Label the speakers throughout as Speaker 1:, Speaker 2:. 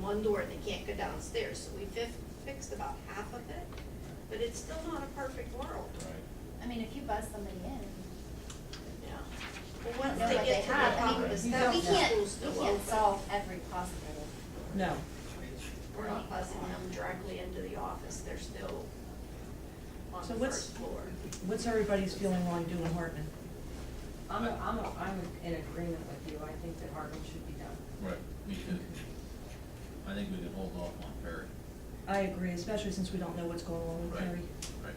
Speaker 1: one door and they can't go downstairs, so we fif- fixed about half of it, but it's still not a perfect world.
Speaker 2: Right.
Speaker 3: I mean, if you buzz somebody in,
Speaker 1: Yeah. Well, once
Speaker 3: know
Speaker 1: they get
Speaker 3: what they
Speaker 1: to the
Speaker 3: have, I
Speaker 1: top
Speaker 3: mean,
Speaker 1: of the
Speaker 3: you
Speaker 1: steps,
Speaker 3: we
Speaker 1: the
Speaker 3: can't,
Speaker 1: school's still
Speaker 3: we
Speaker 1: open.
Speaker 3: can't solve every possible.
Speaker 4: No.
Speaker 1: We're not buzzing them directly into the office, they're still on
Speaker 4: So
Speaker 1: the
Speaker 4: what's-
Speaker 1: first floor.
Speaker 4: What's everybody's feeling while you doing Hartman?
Speaker 5: I'm, a- I'm, a- I'm in agreement with you, I think that Hardman should be done.
Speaker 2: Right, me too. I think we can hold off on Perry.
Speaker 4: I agree, especially since we don't know what's going on with
Speaker 2: Right.
Speaker 4: Perry.
Speaker 2: Right.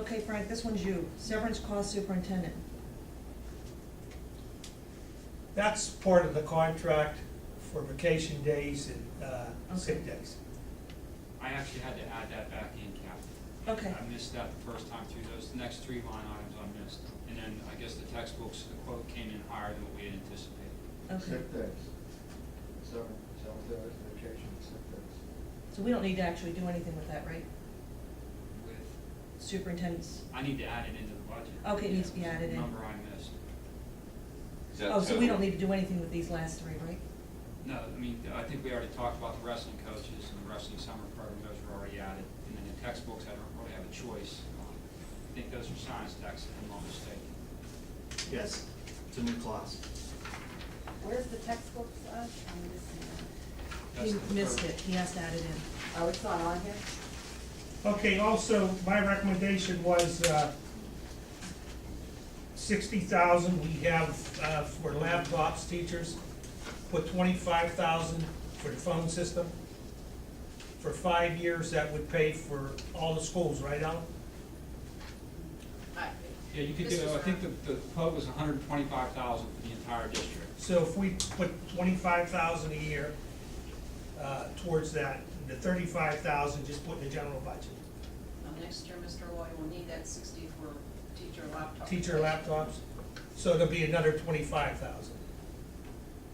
Speaker 4: Okay, Frank, this one's you. Severance cost superintendent.
Speaker 6: That's part of the contract for vacation days and uh, sick
Speaker 4: Okay.
Speaker 6: days.
Speaker 7: I actually had to add that back in, Kathy.
Speaker 4: Okay.
Speaker 7: I missed that the first time through, those next three line items I missed. And then I guess the textbooks, the quote came in higher than what we had anticipated.
Speaker 4: Okay,
Speaker 8: Sick days. Seven, seven days vacation, sick days.
Speaker 4: so we don't need to actually do anything with that, right?
Speaker 7: With,
Speaker 4: Superintendent's,
Speaker 7: I need to add it into the budget.
Speaker 4: Okay, it needs to be added in.
Speaker 7: Number I missed.
Speaker 9: Is that
Speaker 4: oh, so we
Speaker 9: total?
Speaker 4: don't need to do anything with these last three, right?
Speaker 7: No, I mean, I think we already talked about the wrestling coaches and the wrestling summer program, those were already added. And then the textbooks, I don't really have a choice. Um, I think those are science texts, if I'm not mistaken.
Speaker 10: Yes, it's a new class.
Speaker 5: Where's the textbooks at? I'm missing
Speaker 7: That's
Speaker 4: He
Speaker 7: the
Speaker 4: missed
Speaker 7: first-
Speaker 4: it, he has to add it in.
Speaker 5: that. Oh, it's not on here?
Speaker 6: Okay, also, my recommendation was uh, sixty thousand we have uh, for laptops, teachers. Put twenty-five thousand for the phone system. For five years, that would pay for all the schools, right, Alan?
Speaker 7: Yeah, you could
Speaker 1: This
Speaker 7: do,
Speaker 1: was
Speaker 7: I think the, the quote was hundred and twenty-five thousand for the entire district.
Speaker 6: So if we put twenty-five thousand a year uh, towards that, the thirty-five thousand just put in the general budget.
Speaker 11: Next year, Mr. Lloyd will need that sixty for teacher laptop.
Speaker 6: teacher laptops, so it'll be another twenty-five thousand.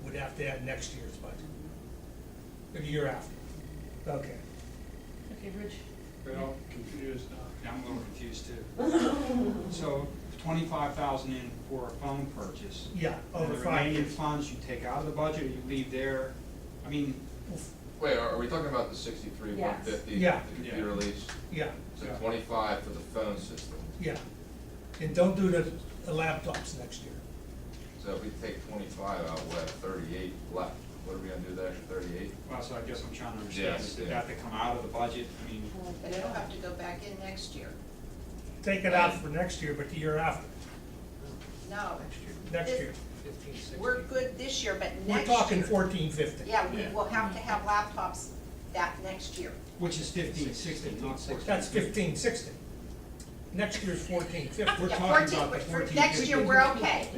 Speaker 6: Would have to add next year's budget, or the year after. Okay.
Speaker 4: Okay, Rich?
Speaker 7: Well, confused. uh, Yeah, I'm a little confused too. So twenty-five thousand in for a phone purchase.
Speaker 6: Yeah, Oh,
Speaker 7: And
Speaker 6: over
Speaker 7: the
Speaker 6: five
Speaker 7: remaining
Speaker 6: years.
Speaker 7: funds you take out of the budget, or you leave there, I mean,
Speaker 9: Wait, are, are we talking about the sixty-three, one
Speaker 5: Yes.
Speaker 9: fifty,
Speaker 6: Yeah.
Speaker 9: the computer lease?
Speaker 6: Yeah,
Speaker 9: So
Speaker 7: Yeah.
Speaker 9: twenty-five for the phone system,
Speaker 6: yeah. And don't do the the laptops next year.
Speaker 9: so if we take twenty-five out, we have thirty-eight left, what are we gonna do with the extra thirty-eight?
Speaker 7: well, so I guess I'm trying to understand,
Speaker 9: Yes,
Speaker 7: is it
Speaker 9: yeah.
Speaker 7: that to come out of the budget? I mean,
Speaker 11: But it'll have to go back in next year.
Speaker 6: Take it out for next year, but the year after,
Speaker 11: No,
Speaker 6: next year.
Speaker 11: we're good this year, but next year.
Speaker 6: We're talking fourteen, fifteen.
Speaker 11: Yeah, we will have to have laptops that next year.
Speaker 7: which is fifteen, sixteen, not sixteen.
Speaker 6: That's fifteen, sixteen. Next year's fourteen,
Speaker 7: We're
Speaker 6: fifteen.
Speaker 11: Yeah,
Speaker 7: talking
Speaker 11: 14,
Speaker 7: about the
Speaker 11: but for
Speaker 7: 14,
Speaker 11: Next year,
Speaker 7: 15.
Speaker 11: we're okay.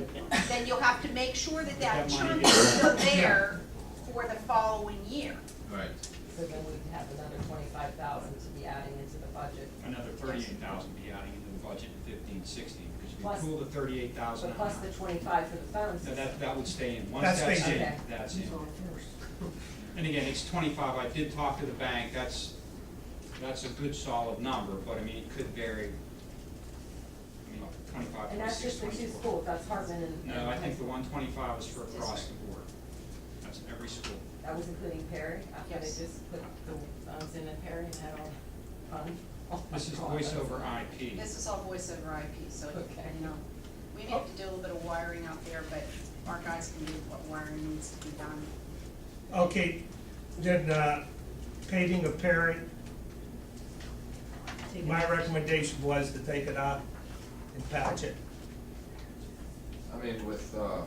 Speaker 11: Then you'll have to make sure that that
Speaker 7: That money
Speaker 11: chunk
Speaker 7: is-
Speaker 11: is still there for the following year.
Speaker 2: Right.
Speaker 5: So then we'd have another twenty-five thousand to be adding into the budget.
Speaker 7: Another thirty-eight thousand be adding into the budget in fifteen, sixteen, because
Speaker 5: Plus-
Speaker 7: if you pull the thirty-eight thousand
Speaker 5: So plus the twenty-five for the phone
Speaker 7: No,
Speaker 5: system.
Speaker 7: that, that would stay in, once
Speaker 6: That
Speaker 7: that's
Speaker 6: stays
Speaker 7: in,
Speaker 5: in.
Speaker 7: that's in. And again, it's twenty-five, I did talk to the bank, that's, that's a good solid number, but I mean, it could vary. You know, twenty-five,
Speaker 5: And that's just
Speaker 7: twenty-six,
Speaker 5: the two
Speaker 7: twenty-four.
Speaker 5: schools, that's Hartman and.
Speaker 7: No, I think the one twenty-five is for across the board, that's every school.
Speaker 5: That was including Perry, I thought they
Speaker 11: Yes.
Speaker 5: just put the, I was in at Perry and had all fun. all
Speaker 7: This is
Speaker 5: fun.
Speaker 7: voice over IP,
Speaker 11: This is all voice over IP, so,
Speaker 5: Okay.
Speaker 11: you know, we may have to do a little bit of wiring out there, but our guys can do what wiring needs to be done.
Speaker 6: Okay, then, uh, paving of Perry,
Speaker 4: Take it.
Speaker 6: My recommendation was to take it out and patch it.
Speaker 9: I mean, with, uh,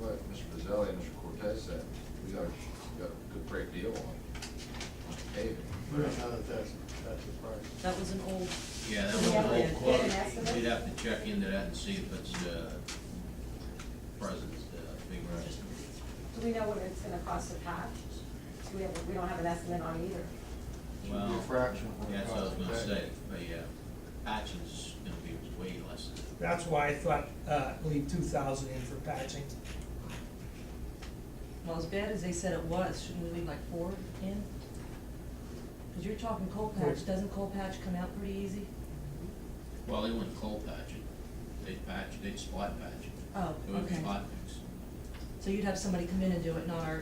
Speaker 9: what Mr. Brazili and Mr. Cortez said, we got, we got a good great deal on, on paving.
Speaker 8: There's another that's, that's the price.
Speaker 4: That was an old,
Speaker 10: Yeah, that
Speaker 5: So
Speaker 10: was
Speaker 5: we
Speaker 10: an
Speaker 5: have to
Speaker 10: old
Speaker 5: get
Speaker 10: quote.
Speaker 5: an estimate?
Speaker 10: We'd have to check into that and see if it's, uh, present, uh, being registered.
Speaker 5: Do we know what it's gonna cost to patch? Do we have, we don't have an estimate on either.
Speaker 8: Should be a
Speaker 10: Well,
Speaker 8: fraction of what it
Speaker 10: yeah, that's what I was
Speaker 8: costs
Speaker 10: gonna
Speaker 8: today.
Speaker 10: say, but yeah, patching's gonna be way less than that.
Speaker 6: That's why I thought, uh, leave two thousand in for patching.
Speaker 4: well, as bad as they said it was, shouldn't we leave like four in? Cause you're talking coal patch, doesn't coal patch come out pretty easy?
Speaker 10: Well, they wouldn't coal patch it, they'd patch, they'd spot patch it.
Speaker 4: Oh,
Speaker 10: It would be
Speaker 4: okay.
Speaker 10: hot mix.
Speaker 4: So you'd have somebody come in and do it, not our,